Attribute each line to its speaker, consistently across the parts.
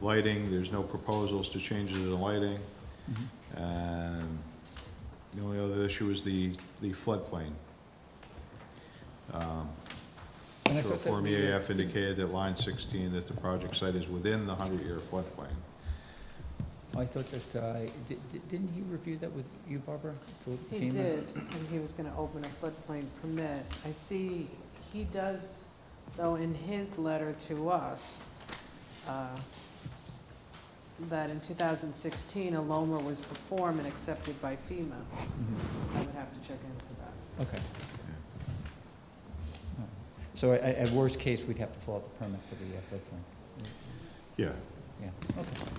Speaker 1: lighting, there's no proposals to changes in the lighting.
Speaker 2: Mm-hmm.
Speaker 1: Um, The only other issue is the, the floodplain. Um,
Speaker 2: And I
Speaker 1: So
Speaker 2: thought that
Speaker 1: Form E
Speaker 2: we were-
Speaker 1: EAF indicated that line 16, that the project site is within the 100-year floodplain.
Speaker 2: I thought that, uh, di- di- didn't he review that with you, Barbara? To
Speaker 3: He
Speaker 2: FEMA?
Speaker 3: did, and he was gonna open a floodplain permit. I see, he does, though, in his letter to us, uh, that in 2016, a LOMR was performed and accepted by FEMA.
Speaker 2: Mhm.
Speaker 3: I would have to check into that.
Speaker 2: Okay. All right. So at, at worst case, we'd have to fill out the permit for the uh, floodplain.
Speaker 1: Yeah,
Speaker 2: Yeah, okay.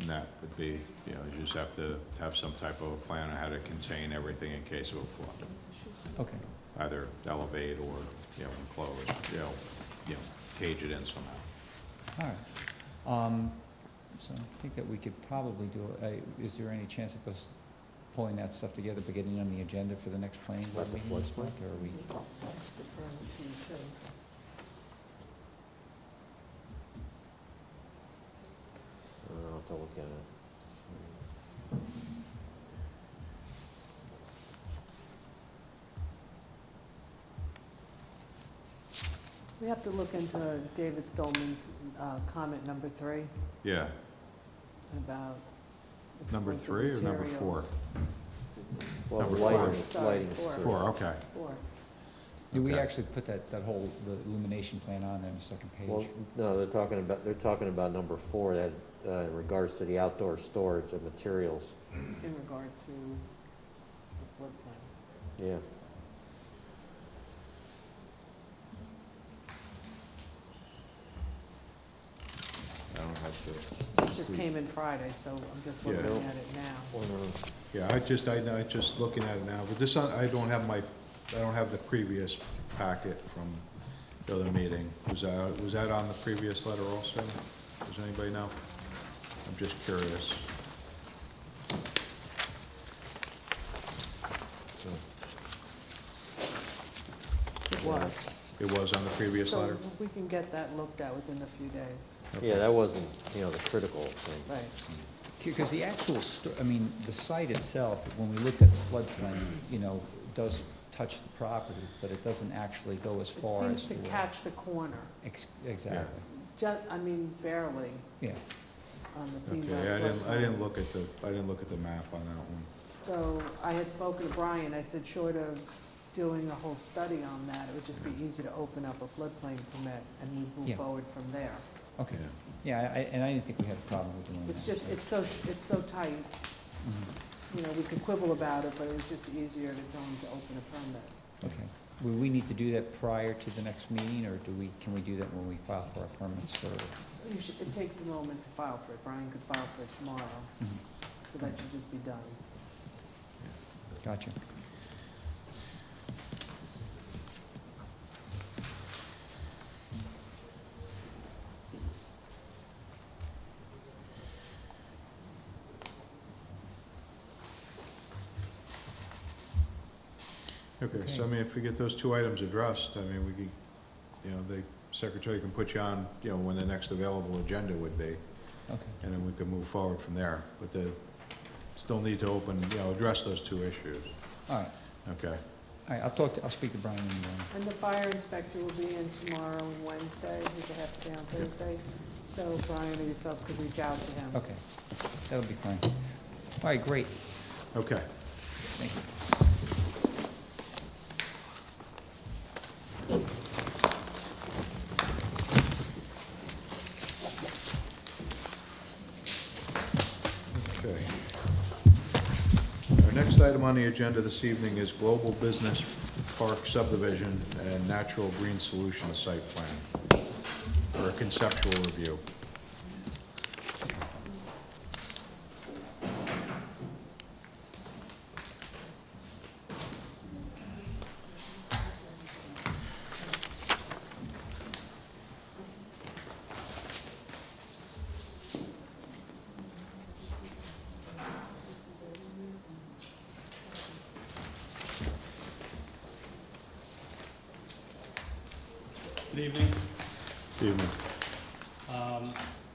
Speaker 1: and that would be, you know, you just have to have some type of a plan on how to contain everything in case of a flood.
Speaker 2: Okay,
Speaker 1: Either elevate or, you know, enclose, you know, you know, cage it in somehow.
Speaker 2: all right. Um, So I think that we could probably do, it. Uh, is there any chance of us pulling that stuff together, but getting it on the agenda for the next planning board
Speaker 4: Like the
Speaker 2: meeting this
Speaker 4: floodplain?
Speaker 2: month, or are we?
Speaker 3: Deferring to you, too.
Speaker 4: I'll have to look at it.
Speaker 3: We have to look into David Stolman's uh, comment number three
Speaker 1: Yeah,
Speaker 3: about
Speaker 1: number
Speaker 3: explosive
Speaker 1: three or number four?
Speaker 3: materials.
Speaker 4: Well,
Speaker 1: Number
Speaker 4: lighting,
Speaker 3: four.
Speaker 4: is-
Speaker 3: Sorry,
Speaker 4: lighting is
Speaker 3: four.
Speaker 4: three.
Speaker 1: Four, okay.
Speaker 3: Four.
Speaker 2: Did we
Speaker 1: Okay.
Speaker 2: actually put that, that whole, the illumination plan on there on the second
Speaker 4: Well,
Speaker 2: page?
Speaker 4: no, they're talking about, they're talking about number four, that, uh, in regards to the outdoor storage of materials,
Speaker 3: in regard to the floodplain.
Speaker 4: yeah.
Speaker 1: I don't have to.
Speaker 3: It just came in Friday, so I'm just looking at
Speaker 1: Hmm. Yeah.
Speaker 3: it now.
Speaker 4: One of them.
Speaker 1: Yeah, I just, I, I just looking at it now, but this, I don't have my, I don't have the previous packet from the other meeting. Was that, was that on the previous letter also? Does anybody know? I'm just curious.
Speaker 3: It was.
Speaker 1: It was on the previous
Speaker 3: So
Speaker 1: letter?
Speaker 3: we can get that looked at within a few days.
Speaker 4: Yeah, that wasn't, you know, the critical thing.
Speaker 3: Right.
Speaker 2: Because the actual, sto- I mean, the site itself, when we looked at the floodplain, you know, does touch the property, but it doesn't actually go as
Speaker 3: It
Speaker 2: far as
Speaker 3: seems
Speaker 2: to.
Speaker 3: to
Speaker 2: where-
Speaker 3: catch the corner,
Speaker 2: Ex- Exactly,
Speaker 3: just, I mean, barely
Speaker 2: yeah.
Speaker 3: on the FEMA
Speaker 1: Okay, I didn't, I
Speaker 3: floodplain.
Speaker 1: didn't look at the, I didn't look at the map on that one.
Speaker 3: So I had spoken to Brian, I said, short of doing a whole study on that, it would just be easy to open up a floodplain permit and we
Speaker 2: Yeah.
Speaker 3: move forward from there.
Speaker 2: Okay,
Speaker 1: Yeah.
Speaker 2: yeah, I, I- and I didn't think we had a problem with doing that.
Speaker 3: It's just,
Speaker 2: so-
Speaker 3: it's so, sh- it's so tight.
Speaker 2: Mhm,
Speaker 3: you know, we could quibble about it, but it was just easier to tell them to open a permit.
Speaker 2: Okay, will we need to do that prior to the next meeting, or do we, can we do that when we file for our permits for? mm-hmm.
Speaker 3: You should, it takes a moment to file for it, Brian could file for it tomorrow,
Speaker 2: Mhm,
Speaker 3: so that should just be done.
Speaker 2: Gotcha.
Speaker 1: Okay, so I
Speaker 2: Okay.
Speaker 1: mean, if we get those two items addressed, I mean, we could, you know, the secretary can put you on, you know, when the next available agenda would be.
Speaker 2: Okay,
Speaker 1: and then we can move forward from there. But the, still need to open, you know, address those two issues,
Speaker 2: all right, all
Speaker 1: okay?
Speaker 2: right, I'll talk, to- I'll speak to Brian in the morning.
Speaker 3: And the fire inspector will be in tomorrow and Wednesday, he's a half day on Thursday, so Brian or yourself could reach out to him.
Speaker 2: Okay, that'll be fine. All right, great,
Speaker 1: Okay,
Speaker 2: thank you.
Speaker 1: okay. Our next item on the agenda this evening is Global Business Park Subdivision and Natural Green Solutions Site Plan for a conceptual review.
Speaker 5: Good evening.
Speaker 1: Evening.